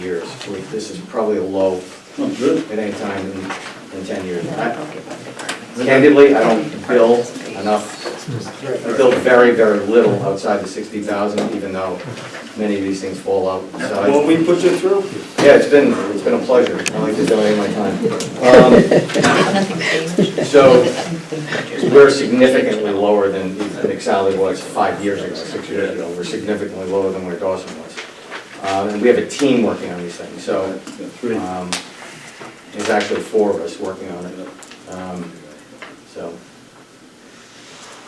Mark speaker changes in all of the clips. Speaker 1: years. We- This is probably a low
Speaker 2: Oh, good.
Speaker 1: at any time in, in ten years. I-
Speaker 2: Okay.
Speaker 1: Candidly, I don't bill enough, I bill very, very little outside the sixty thousand, even though many of these things fall out. So I-
Speaker 2: Well, we put you through.
Speaker 1: Yeah, it's been, it's been a pleasure. I like to donate my time. Um, So we're significantly lower than than Exali was five years ago, six years ago. We're significantly lower than where Dawson was. Um, And we have a team working on these things, so
Speaker 2: Three.
Speaker 1: um, there's actually four of us working on it. Um, So,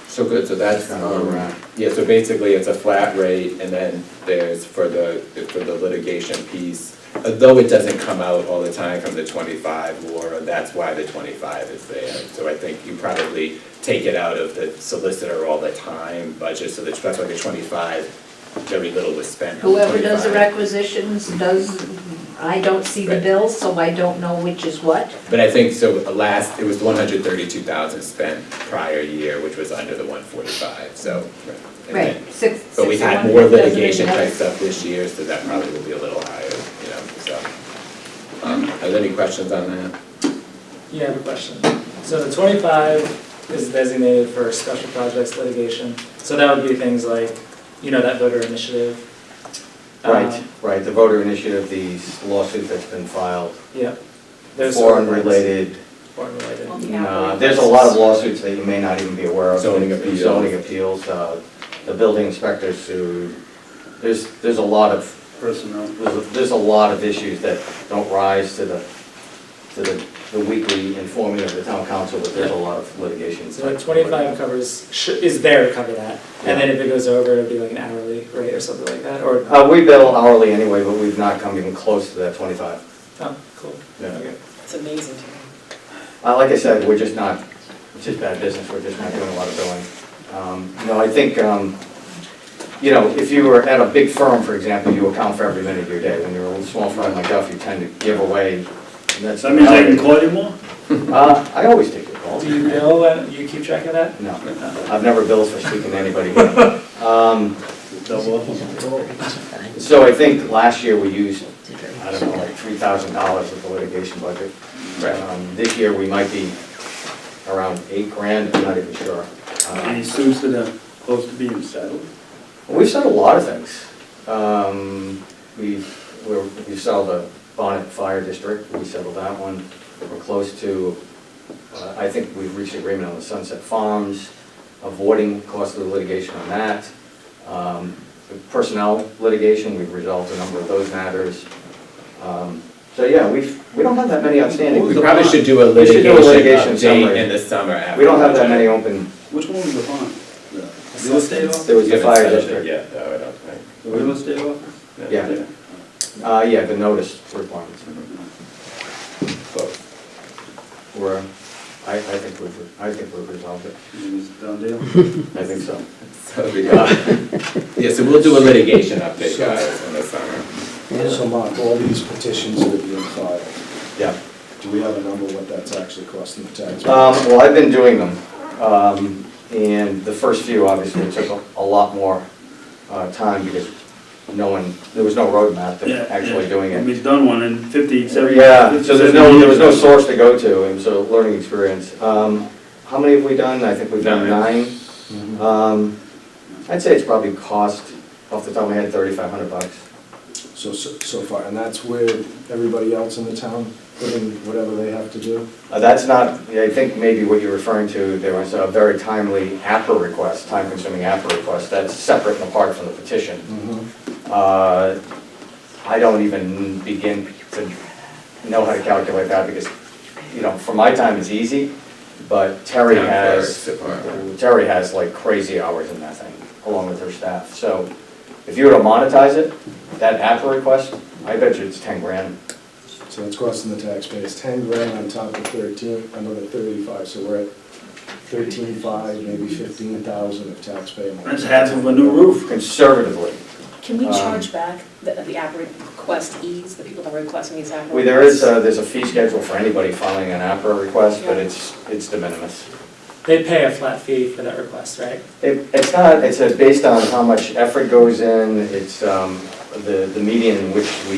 Speaker 3: So good, so that's,
Speaker 1: Kind of where we're at.
Speaker 3: um, yeah, so basically it's a flat rate and then there's for the, for the litigation piece. uh, Though it doesn't come out all the time from the twenty-five, Laura, that's why the twenty-five is there. So I think you probably take it out of the solicitor all the time budget, so that's that's why the twenty-five, very little was spent on the
Speaker 4: Whoever does the
Speaker 3: 25.
Speaker 4: requisitions does, I don't see the
Speaker 3: Right.
Speaker 4: bills, so I don't know which is what.
Speaker 3: But I think, so the last, it was one hundred thirty-two thousand spent prior year, which was under the one forty-five, so. and then-
Speaker 4: Right, six, six
Speaker 3: But we've
Speaker 4: to
Speaker 3: had
Speaker 4: one
Speaker 3: more
Speaker 4: doesn't really
Speaker 3: litigation
Speaker 4: matter.
Speaker 3: type stuff this year, so that probably will be a little higher, you know, so. Um, Are there any questions on that?
Speaker 5: Yeah, I have a question. So the twenty-five is designated for special projects litigation, so that would be things like, you know, that voter initiative. Uh,
Speaker 1: right, right, the voter initiative, the lawsuit that's been filed,
Speaker 5: Yep. Those sort of
Speaker 1: foreign
Speaker 5: things.
Speaker 1: related.
Speaker 5: Foreign related.
Speaker 1: Uh, There's a lot of lawsuits that you may not even be aware of.
Speaker 3: Zoning appeals.
Speaker 1: Zoning appeals, uh, the building inspectors sued. There's, there's a lot of
Speaker 2: Personnel.
Speaker 1: there's, there's a lot of issues that don't rise to the, to the, the weekly informing of the town council, but there's a lot of litigation.
Speaker 5: So like twenty-five covers, sh- is there to cover that, and then if it goes over, it'd be like an hourly rate or something like that, or,
Speaker 1: Uh, we bill hourly anyway, but we've not come even close to that twenty-five.
Speaker 5: oh, cool.
Speaker 1: Uh,
Speaker 6: It's amazing to
Speaker 1: like I said, we're just not, it's just bad business, we're just not doing a lot of billing. Um, no, I think, um, you know, if you were at a big firm, for example, you account for every minute of your day. When you're a small firm like us, you tend to give away, and that's.
Speaker 2: So that means I can call you more?
Speaker 1: Uh, I always take your calls.
Speaker 5: Do you bill, and you keep track of that?
Speaker 1: No, I've never billed for speaking to anybody. Um,
Speaker 2: Double up.
Speaker 1: So I think last year we used, I don't know, like three thousand dollars of the litigation budget. Um, This year, we might be around eight grand, I'm not even sure.
Speaker 2: And
Speaker 1: Uh,
Speaker 2: he sues to the, close to being settled.
Speaker 1: We've sold a lot of things. Um, We, we're- we sold the Bonnet Fire District, we settled that one. We're close to, uh, I think we've reached agreement on the Sunset Farms, avoiding costly litigation on that. Um, the Personnel litigation, we've resolved a number of those matters. Um, So, yeah, we've, we don't have that many outstanding.
Speaker 3: We probably should do a
Speaker 1: We should
Speaker 3: litigation
Speaker 1: do a litigation
Speaker 3: update
Speaker 1: summary.
Speaker 3: in the summer after.
Speaker 1: We don't have that many open,
Speaker 2: Which one was the bond? The real estate offer?
Speaker 1: there was the
Speaker 3: You haven't
Speaker 1: fire
Speaker 3: settled it
Speaker 1: district.
Speaker 3: yet, though, I don't think.
Speaker 2: The real estate offer?
Speaker 1: Yeah. Uh, yeah, the notice requirements.
Speaker 3: Both.
Speaker 1: We're, I, I think we've, I think we've resolved it.
Speaker 2: Is it done deal?
Speaker 1: I think so.
Speaker 3: So we got, yeah, so we'll do a litigation update, guys, in the summer.
Speaker 7: So Mark, all these petitions that are being filed,
Speaker 1: Yeah.
Speaker 7: do we have a number what that's actually costing the taxpayer?
Speaker 1: Um, well, I've been doing them, um, and the first few obviously took a, a lot more, uh, time because no one, there was no roadmap
Speaker 2: Yeah,
Speaker 1: to actually
Speaker 2: yeah.
Speaker 1: doing
Speaker 2: I mean,
Speaker 1: it.
Speaker 2: He's done one in fifty, seventy.
Speaker 1: Yeah, so there's
Speaker 2: 50,
Speaker 1: no, there was no
Speaker 2: 70.
Speaker 1: source to go to, and so learning experience. Um, how many have we done? I think we've done
Speaker 2: Nine.
Speaker 1: nine.
Speaker 2: Mm-hmm.
Speaker 1: Um, I'd say it's probably cost, off the top of my head, thirty-five hundred bucks.
Speaker 7: So, so so far, and that's where everybody else in the town put in whatever they have to do?
Speaker 1: Uh, That's not, I think maybe what you're referring to, there was a very timely APRA request, time-consuming APRA request, that's separate and apart from the petition. Uh, I don't even begin to know how to calculate that, because, you know, for my time, it's easy, but Terry
Speaker 3: Town
Speaker 1: has,
Speaker 3: clerk's department.
Speaker 1: Terry has like crazy hours in that thing, along with her staff. So if you were to monetize it, that APRA request, I bet you it's 10 grand.
Speaker 7: So it's costing the taxpayers ten grand on top of thirteen, another thirty-five, so we're at thirteen-five, maybe fifteen thousand of taxpayer. money.
Speaker 2: That's half of a new roof.
Speaker 1: Conservatively,
Speaker 6: me. Can we
Speaker 1: Um,
Speaker 6: charge back the, the app request ease, the people that are requesting these app requests?
Speaker 1: Well, there is, uh, there's a fee schedule for anybody filing an APRA request, but it's, it's de minimis.
Speaker 5: They pay a flat fee for that request, right?
Speaker 1: It, it's not, it's uh, based on how much effort goes in, it's, um, the, the median in which we